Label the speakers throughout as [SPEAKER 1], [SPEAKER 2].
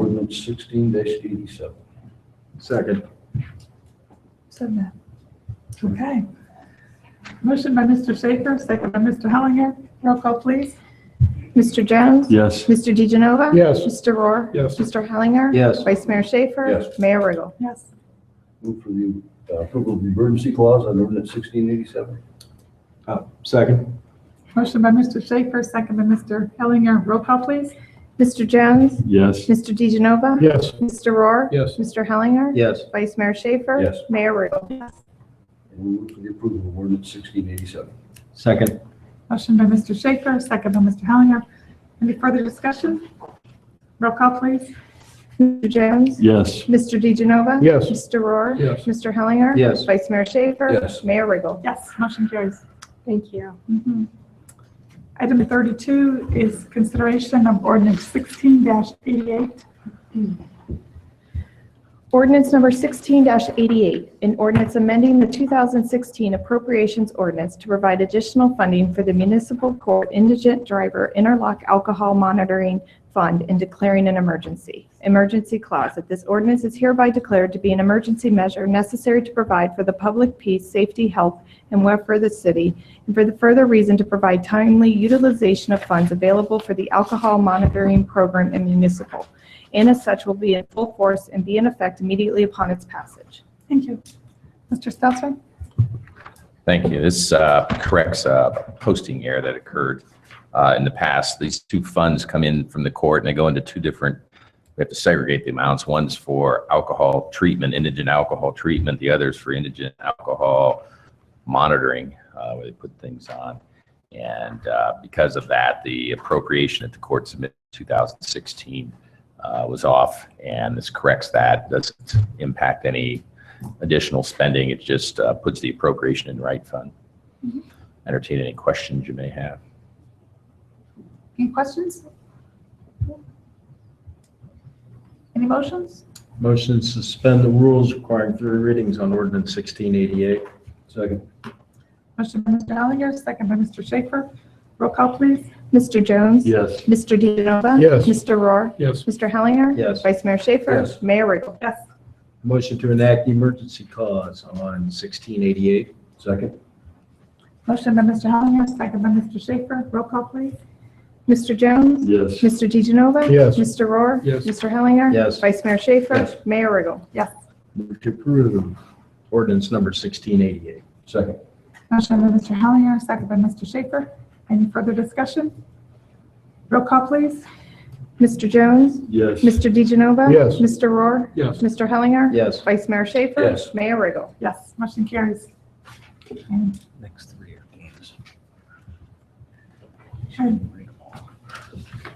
[SPEAKER 1] ordinance sixteen eighty-seven.
[SPEAKER 2] Second.
[SPEAKER 3] Said that. Okay. Motion by Mr. Schaefer, second by Mr. Hellinger. Roll call, please.
[SPEAKER 4] Mr. Jones?
[SPEAKER 2] Yes.
[SPEAKER 4] Mr. DeGenova?
[SPEAKER 2] Yes.
[SPEAKER 4] Mr. Rohr?
[SPEAKER 2] Yes.
[SPEAKER 4] Mr. Hellinger?
[SPEAKER 1] Yes.
[SPEAKER 4] Vice Mayor Schaefer?
[SPEAKER 1] Yes.
[SPEAKER 4] Mayor Riggle?
[SPEAKER 3] Yes.
[SPEAKER 1] Move for the uh, approval of the emergency clause on ordinance sixteen eighty-seven.
[SPEAKER 5] Uh,
[SPEAKER 2] Second.
[SPEAKER 3] Motion by Mr. Schaefer, second by Mr. Hellinger. Roll call, please.
[SPEAKER 4] Mr. Jones?
[SPEAKER 2] Yes.
[SPEAKER 4] Mr. DeGenova?
[SPEAKER 2] Yes.
[SPEAKER 4] Mr. Rohr?
[SPEAKER 2] Yes.
[SPEAKER 4] Mr. Hellinger?
[SPEAKER 1] Yes.
[SPEAKER 4] Vice Mayor Schaefer?
[SPEAKER 1] Yes.
[SPEAKER 4] Mayor Riggle?
[SPEAKER 1] And move for the approval of ordinance sixteen eighty-seven.
[SPEAKER 2] Second.
[SPEAKER 3] Motion by Mr. Schaefer, second by Mr. Hellinger. Any further discussion? Roll call, please.
[SPEAKER 4] Mr. Jones?
[SPEAKER 2] Yes.
[SPEAKER 4] Mr. DeGenova?
[SPEAKER 2] Yes.
[SPEAKER 4] Mr. Rohr?
[SPEAKER 2] Yes.
[SPEAKER 4] Mr. Hellinger?
[SPEAKER 1] Yes.
[SPEAKER 4] Vice Mayor Schaefer?
[SPEAKER 1] Yes.
[SPEAKER 4] Mayor Riggle?
[SPEAKER 3] Yes, motion carries.
[SPEAKER 4] Thank you.
[SPEAKER 3] Mhm. Item 32 is consideration of ordinance 16-88.
[SPEAKER 4] Ordinance number 16-88, an ordinance amending the 2016 appropriations ordinance to provide additional funding for the municipal court indigent driver interlock alcohol monitoring fund and declaring an emergency. Emergency clause, that this ordinance is hereby declared to be an emergency measure necessary to provide for the public peace, safety, health, and welfare of the city, and for the further reason to provide timely utilization of funds available for the alcohol monitoring program and municipal and as such will be in full force and be in effect immediately upon its passage.
[SPEAKER 3] Thank you. Mr. Stelter?
[SPEAKER 6] Thank you. This uh, corrects a posting error that occurred uh, in the past. These two funds come in from the court and they go into two different, we have to segregate the amounts. One's for alcohol treatment, indigent alcohol treatment, the other's for indigent alcohol monitoring, uh, where they put things on. And uh, because of that, the appropriation at the court submitted in 2016 uh, was off, and this corrects that. Doesn't impact any additional spending. It just uh, puts the appropriation in the right fund. Entertain any questions you may have.
[SPEAKER 3] Any questions? Any motions?
[SPEAKER 5] Motion to suspend the rules requiring three readings on ordinance 1688.
[SPEAKER 1] Second.
[SPEAKER 3] Motion by Mr. Hellinger, second by Mr. Schaefer. Roll call, please.
[SPEAKER 4] Mr. Jones?
[SPEAKER 2] Yes.
[SPEAKER 4] Mr. DeGenova?
[SPEAKER 2] Yes.
[SPEAKER 4] Mr. Rohr?
[SPEAKER 2] Yes.
[SPEAKER 4] Mr. Hellinger?
[SPEAKER 5] Yes.
[SPEAKER 4] Vice Mayor Schaefer?
[SPEAKER 1] Yes.
[SPEAKER 4] Mayor Riggle?
[SPEAKER 3] Yes.
[SPEAKER 5] Motion to enact the emergency clause on 1688.
[SPEAKER 1] Second.
[SPEAKER 3] Motion by Mr. Hellinger, second by Mr. Schaefer. Roll call, please.
[SPEAKER 4] Mr. Jones?
[SPEAKER 2] Yes.
[SPEAKER 4] Mr. DeGenova?
[SPEAKER 2] Yes.
[SPEAKER 4] Mr. Rohr?
[SPEAKER 2] Yes.
[SPEAKER 4] Mr. Hellinger?
[SPEAKER 5] Yes.
[SPEAKER 4] Vice Mayor Schaefer?
[SPEAKER 1] Yes.
[SPEAKER 4] Mayor Riggle?
[SPEAKER 3] Yes.
[SPEAKER 5] Move to approve ordinance number 1688.
[SPEAKER 1] Second.
[SPEAKER 3] Motion by Mr. Hellinger, second by Mr. Schaefer. Any further discussion? Roll call, please.
[SPEAKER 4] Mr. Jones?
[SPEAKER 2] Yes.
[SPEAKER 4] Mr. DeGenova?
[SPEAKER 2] Yes.
[SPEAKER 4] Mr. Rohr?
[SPEAKER 2] Yes.
[SPEAKER 4] Mr. Hellinger?
[SPEAKER 5] Yes.
[SPEAKER 4] Vice Mayor Schaefer?
[SPEAKER 1] Yes.
[SPEAKER 4] Mayor Riggle?
[SPEAKER 3] Yes, motion carries. And
[SPEAKER 6] Next three are games.
[SPEAKER 3] Sure.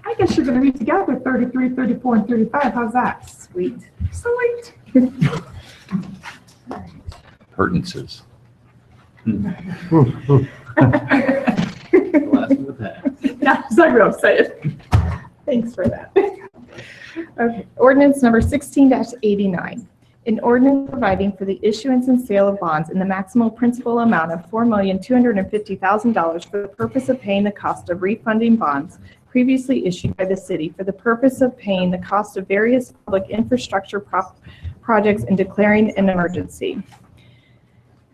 [SPEAKER 3] I guess you're going to read together 33, 34, and 35. How's that?
[SPEAKER 4] Sweet.
[SPEAKER 3] Sweet.
[SPEAKER 6] Pertinences.
[SPEAKER 5] Last of the pack.
[SPEAKER 3] Yeah, I will say it.
[SPEAKER 4] Thanks for that. Okay, ordinance number sixteen eighty-nine. An ordinance providing for the issuance and sale of bonds in the maximal principal amount of four million, two hundred and fifty thousand dollars for the purpose of paying the cost of refunding bonds previously issued by the city for the purpose of paying the cost of various public infrastructure prop- projects and declaring an emergency.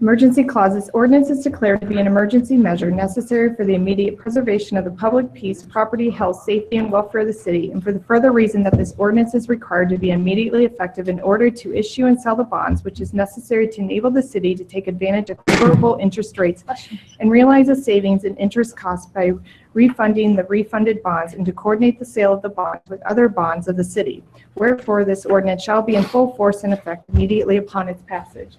[SPEAKER 4] Emergency clauses, ordinance is declared to be an emergency measure necessary for the immediate preservation of the public peace, property, health, safety, and welfare of the city, and for the further reason that this ordinance is required to be immediately effective in order to issue and sell the bonds, which is necessary to enable the city to take advantage of favorable interest rates and realize a savings in interest costs by refunding the refunded bonds and to coordinate the sale of the bonds with other bonds of the city. Wherefore, this ordinance shall be in full force and effect immediately upon its passage.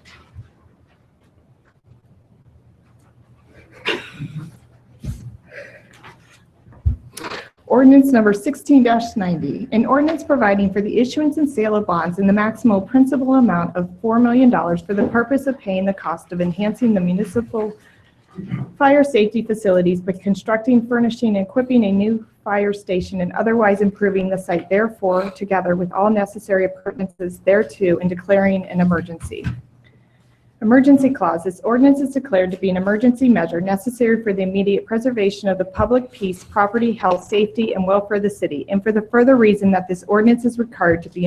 [SPEAKER 4] Ordinance number 16-90, an ordinance providing for the issuance and sale of bonds in the maximal principal amount of $4 million for the purpose of paying the cost of enhancing the municipal fire safety facilities by constructing, furnishing, and equipping a new fire station and otherwise improving the site therefore, together with all necessary appurtenances thereto, and declaring an emergency. Emergency clause, this ordinance is declared to be an emergency measure necessary for the immediate preservation of the public peace, property, health, safety, and welfare of the city, and for the further reason that this ordinance is required to be